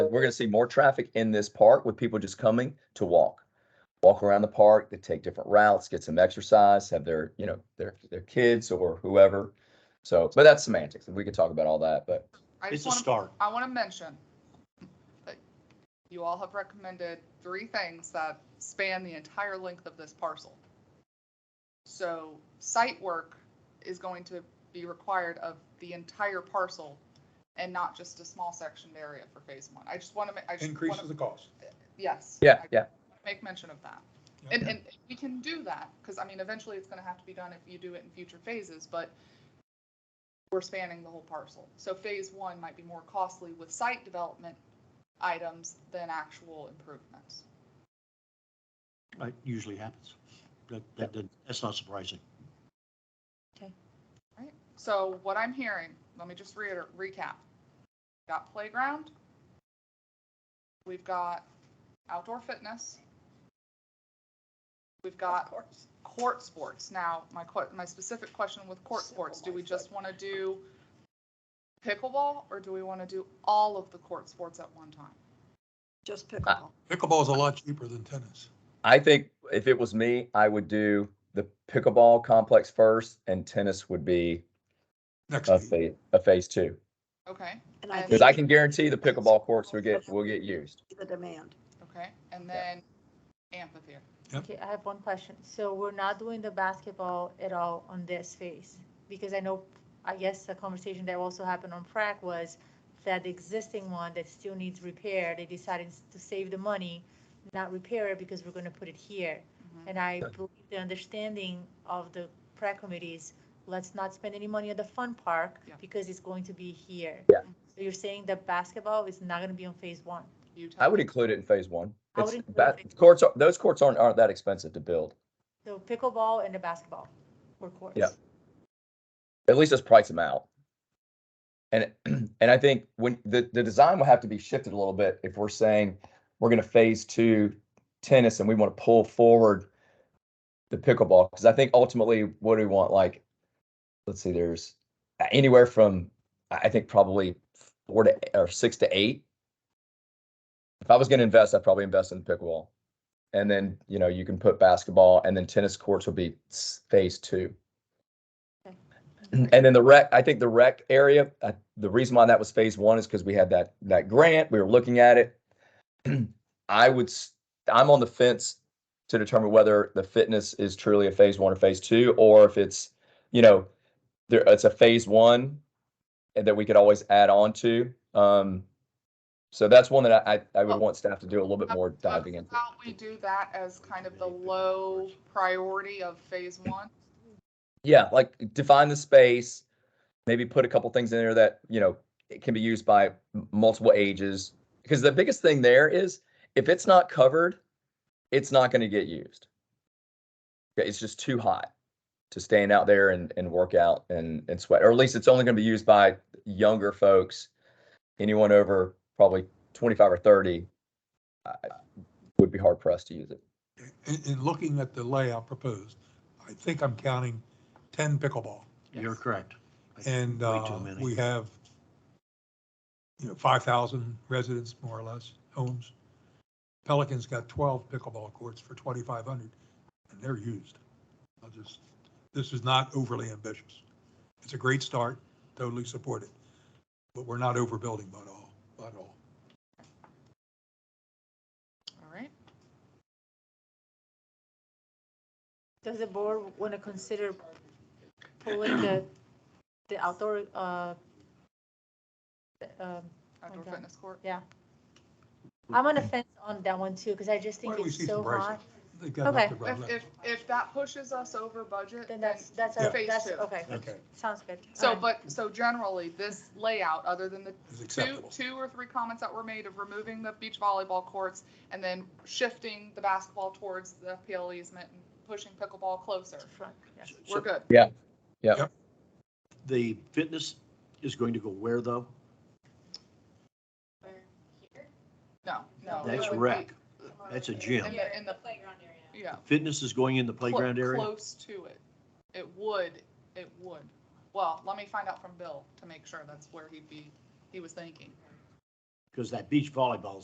we're gonna see more traffic in this park with people just coming to walk. Walk around the park, they take different routes, get some exercise, have their, you know, their, their kids or whoever. So, but that's semantics. and We could talk about all that, but I It's just a want, start. I want to mention that you all have recommended three things that span the entire length of this parcel. So site work is going to be required of the entire parcel and not just a small sectioned area for phase one. I just want to, I just want Increases to, the cost. yes. yeah, I yeah, Make mention of that. Yeah. And, and we can do that, because I mean, eventually it's gonna have to be done if you do it in future phases, but we're spanning the whole parcel. So phase one might be more costly with site development items than actual improvements. It usually happens. That, that, that- that's not surprising. So what I'm hearing, let me just reiter recap. Got playground. We've got outdoor fitness. We've got court sports. Now, my que- my specific question with court sports, do we just want to do pickleball or do we want to do all of the court sports at one time? Just pickleball. Pickleball's a lot cheaper than tennis. I think if it was me, I would do the pickleball complex first and tennis would be Next a week. phase, a phase two. Okay, And I Because Cause think I can guarantee the pickleball courts will get, will get used. it's the demand. okay, and Yeah. then amphitheater. Okay, I have one question. So we're not doing the basketball at all on this phase? Because I know, I guess the conversation that also happened on Prac was that the existing one that still needs repair, they decided to save the money, not repair it because we're gonna put it here. Mhm. And I Yeah. believe the understanding of the prac committee is, let's not spend any money at the fun park Yeah. because it's going to be here. Yeah. So you're saying that basketball is not gonna be on phase one? You tell I would me. include it in phase one. I would It's, include ba- it in phase courts, are- those courts aren't, aren't that expensive to build. So pickleball and the basketball were courts? Yeah. At least let's price them out. And, and I think when, the, the design will have to be shifted a little bit if we're saying we're gonna phase two tennis and we want to pull forward the pickleball, because I think ultimately, what do we want, like, let's see, there's anywhere from, I I think probably four to, or six to eight. If I was gonna invest, I'd probably invest in pickleball. And then, you know, you can put basketball and then tennis courts will be s- phase two. Okay. And then the rec, I think the rec area, uh, the reason why that was phase one is because we had that, that grant, we were looking at it. I would, s- I'm on the fence to determine whether the fitness is truly a phase one or phase two, or if it's, you know, there, it's a phase one and that we could always add on to. Um, so that's one that I, I I would Well- want staff to do a little bit more How- diving into. How we do that as kind of the low priority of phase one? Yeah, like define the space, maybe put a couple things in there that, you know, it can be used by m- multiple ages. Because the biggest thing there is if it's not covered, it's not going to get used. Yeah, It's just too hot to stand out there and, and work out and, and sweat, or at least it's only going to be used by younger folks. Anyone over probably 25 or 30 I- would be hard pressed to use it. In, in looking at the layout proposed, I think I'm counting ten pickleball. You're Yes. correct. And, Way uh, too many. we have, you know, five thousand residents, more or less, homes. Pelican's got twelve pickleball courts for twenty-five hundred, and they're used. I'll just, this is not overly ambitious. It's a great start, totally support it, but we're not overbuilding by all, by all. All right. Does the board want to consider pulling the, the outdoor, uh, the, um, Outdoor Okay. fitness court. yeah? I'm on the fence on that one too, because I just Why think don't we it's see some so pricing? hot. They've got enough Okay. to run If, left. if, if that pushes us over budget, then, Then that's, that's, Yeah. a- Phase that's, two. okay, Okay, sounds good. so, Alright. but, so generally, this layout, other than the it's two, acceptable. two or three comments that were made of removing the beach volleyball courts and then shifting the basketball towards the PL easement and pushing pickleball closer, Front, yeah. we're So good. The fitness is going to go where though? No, no. That's it would be rec. That's a gym. In the, in the, yeah. Fitness is going in the clo- playground area? Close to it. It would, it would. Well, let me find out from Bill to make sure that's where he'd be, he was thinking. Because that beach volleyball